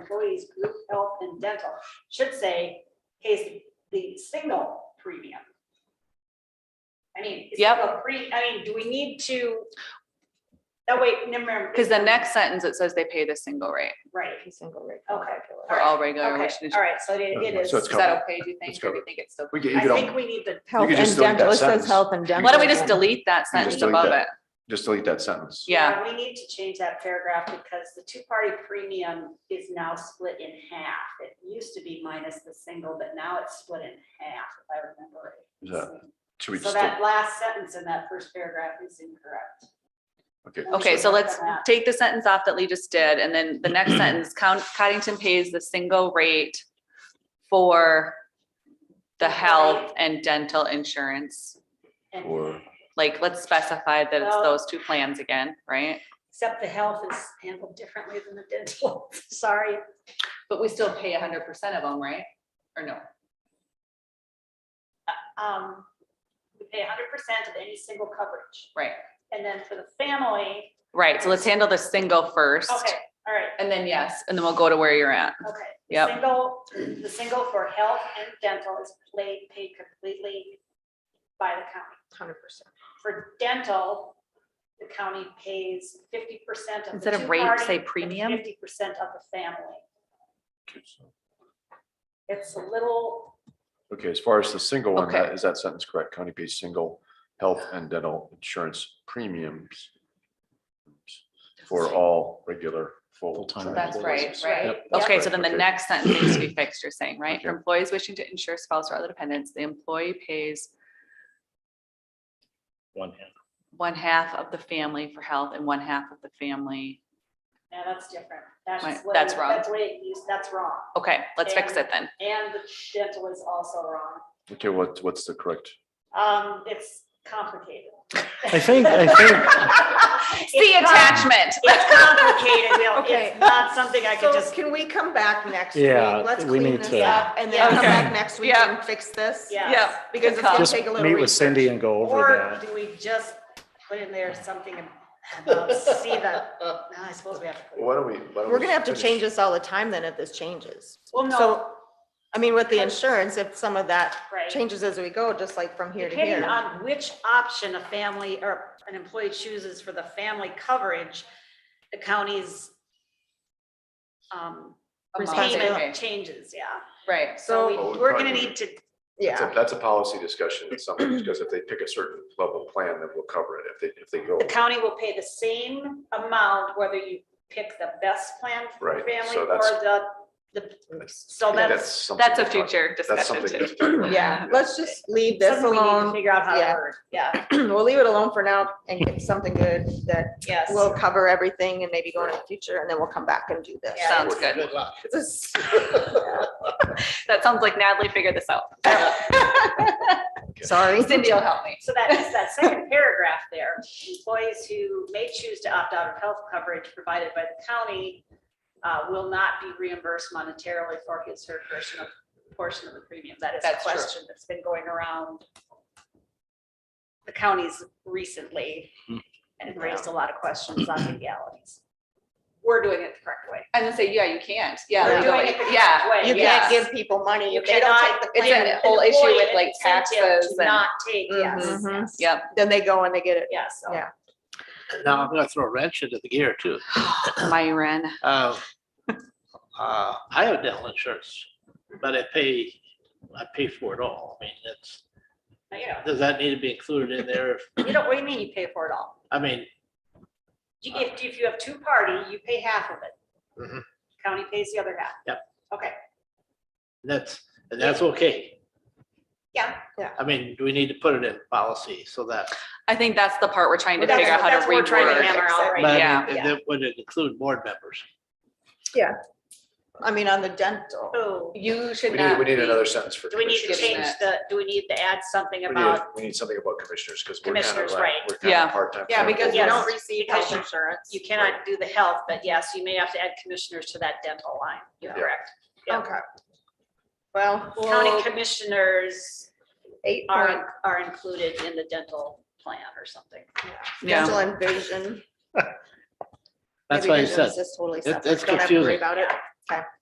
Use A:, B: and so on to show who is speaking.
A: employees, group health and dental, should say pays the- the single premium. I mean. is
B: Yep.
A: single Pre, I mean, do we need to? That way, never.
B: Because the next sentence, it says they pay the single rate
A: Right,
C: Every single rate.
A: okay,
B: for all regular.
A: okay,
B: which is-
A: all right, so it it is.
D: So it's
B: Is that
D: covered.
B: okay, do you think?
D: It's
B: Or do you
D: covered.
B: think it's still?
D: We can, you
A: I
D: could,
A: think
D: al-
A: we need to,
D: could
C: Health
D: just
C: and
D: delete that
C: dental, it says
D: sentence.
C: health and dental.
B: Why don't we just
C: again.
B: delete that
D: can
B: sentence
D: just delete
B: above
D: that.
B: it?
D: just delete that sentence.
B: Yeah.
A: yeah, we need to change that paragraph because the two-party premium is now split in half. It used to be minus the single, but now it's split in half, if I remember
D: Is
A: it.
D: that- Should we
A: So
D: just, del-
A: that last sentence in that first paragraph is incorrect.
D: okay,
A: We
B: Okay,
A: should
B: so
A: work
B: let's
A: on that.
B: take the sentence off that Lee just did, and then the next sentence, Count, Cottington pays the single rate for the health and dental insurance.
A: And-
D: or,
B: Like, let's specify that it's
A: Well-
B: those two plans again, right?
A: Except the health is handled differently than the dental, sorry.
B: But we still pay hundred percent of them, right? Or no?
A: Um, we pay hundred percent of any single coverage.
B: Right,
A: And then for the family,
B: right. So let's handle the single first.
A: okay, all right,
B: And then yes, and then we'll go to where you're at.
A: Okay. the
B: Yep.
A: Single, the single for health and dental is paid, paid completely by the county.
C: 100%.
A: For dental, the county pays fifty percent of.
B: Instead of rate, say premium?
A: Fifty percent of the family. It's a little,
D: okay, as far as the single one, that-
B: Okay.
D: is that sentence correct? County pays single health and dental insurance premiums for all regular full.
E: Full-time
B: That's right,
D: employees.
B: right?
D: Yep, that's
B: Okay, so
D: correct,
B: then the
D: okay.
B: next sentence needs to be fixed, you're saying, right? For
D: Okay.
B: employees wishing to insure spouse or other dependents, the employee pays
E: One hand.
B: one half of the family for health and one half of the family.
A: no, that's different. That's
B: Right,
A: what-
B: that's wrong.
A: That's what it used, that's wrong.
B: Okay, let's fix it then.
A: And the dental is also wrong.
D: Okay, what, what's the correct?
A: Um, it's complicated.
E: I think, I think,
A: It's
B: See
A: com-
B: attachment.
A: It's complicated, Bill.
C: Okay.
A: It's not something I could
C: So
A: just,
C: can we come back next week?
E: Yeah,
C: Let's
E: we
C: clean
E: need
C: this
E: to-
C: up and then come
B: Okay.
C: back next week
B: Yeah.
C: and fix this?
A: Yeah.
B: Yeah.
C: Because it's gonna
E: just
C: take a little
E: meet with
C: research.
E: Cindy and go
A: or
E: over that.
A: do we just put in there something about see the, no, I suppose we have to. put it-
D: Why don't we? why don't
C: We're gonna have to
D: finish-
C: change this all the time then if this changes.
A: Well, no,
C: So, I mean, with the insurance, if some of that
A: right.
C: changes as we go, just like from here to
A: Depending
C: here.
A: on which option a family or an employee chooses for the family coverage, the county's um, payment
B: Okay,
A: changes, yeah.
B: Right,
A: So
C: So,
D: Well,
A: we-
D: we
A: we're
D: Oh, probably
A: gonna
D: would-
A: need to,
D: That's
C: yeah,
D: a, that's a policy discussion at some point, because if they pick a certain level plan, then we'll cover it. If they, if they go.
A: the county will pay the same amount whether you pick the best plan for the
D: Right,
A: family
D: so
A: or
D: that's-
A: the, the,
D: That's-
A: so that's
D: something
B: that's a
D: we'll talk-
B: future
D: That's
B: discussion
D: something.
B: too.
D: we'll talk about.
C: yeah, let's just leave this
A: something we need to
C: alone.
A: figure out how
C: Yeah.
A: to word. Yeah,
C: We'll leave it alone for now and get something good that
A: yes.
C: will cover everything and maybe go into the future and then we'll come back and do this.
A: Yeah.
B: Sounds good.
C: This is-
B: That sounds like Natalie figured this out.
C: Sorry.
B: Cindy will help me.
A: So that is that second paragraph there. Employees who may choose to opt out of health coverage provided by the county uh, will not be reimbursed monetarily for his or her portion of, portion of the premium. That is a
B: That's true.
A: question that's been going around the counties recently
B: Hmm.
A: and it raised a lot of questions on legalities. We're doing it the correct way.
B: I was gonna say, yeah, you can't. Yeah.
A: We're
B: you
A: doing
B: don't-
A: it the correct
B: Yeah.
A: way.
C: You
B: Yes.
C: can't give people money
A: You
C: if they don't
A: cannot-
C: take the
B: it's
C: plan.
B: an whole issue
A: Employee
B: with, like,
A: incentive
B: taxes
A: to
B: and- Mm-hmm.
A: Not take, yes,
C: Mhm.
A: yes.
B: Yep.
C: Then they go and they get it.
A: Yes. Oh, so-
C: Yeah.
F: Now I'm gonna throw a wrench into the gear too.
B: Myron.
F: Uh, uh, I have dental insurance, but I pay, I pay for it all. I mean, that's,
A: You know,
F: does that need to be included in there?
A: you don't, what do you mean you pay for it all?
F: I mean,
A: You get, if you have two party, you pay half of it.
D: Mm-hmm.
F: Mhm.
A: County pays the other half.
F: that's, and that's okay.
A: Yeah.
F: I mean, do we need to put it in policy so that,
B: I think that's the part we're trying to
A: That's-
B: figure out how
A: that's
B: to
A: what we're trying to
B: reword.
A: hammer out
F: but
A: right
F: I
A: now.
F: mean,
B: Yeah.
F: and
A: Yeah.
F: then would it include board members?
C: I mean, on the dental.
A: Oh,
B: You
D: We
B: should
D: need,
B: not.
D: we need
B: be-
D: another sentence for.
A: do we need to
B: Commissioners.
A: change the, do we need to add something
D: We need,
A: about
D: we need something about commissioners because we're kind of
A: Commissioners,
D: like,
A: right.
D: we're kind
B: Yeah.
D: of part-time.
C: Yeah, because you
A: Yes.
C: don't receive health
A: Because you-
C: insurance.
A: you cannot do the health, but yes, you may have to add commissioners to that dental line. You're
D: Yeah.
A: correct. yeah.
C: Okay. Well.
A: County commissioners
C: Eight point,
A: are, are included in the dental plan or something.
B: Yeah.
C: dental and vision.
F: That's
C: Maybe
F: why
C: vision
F: I
C: is
F: said,
C: Just totally
F: It-
C: separate.
F: it's
C: Don't have to worry
F: confusing.
C: about it.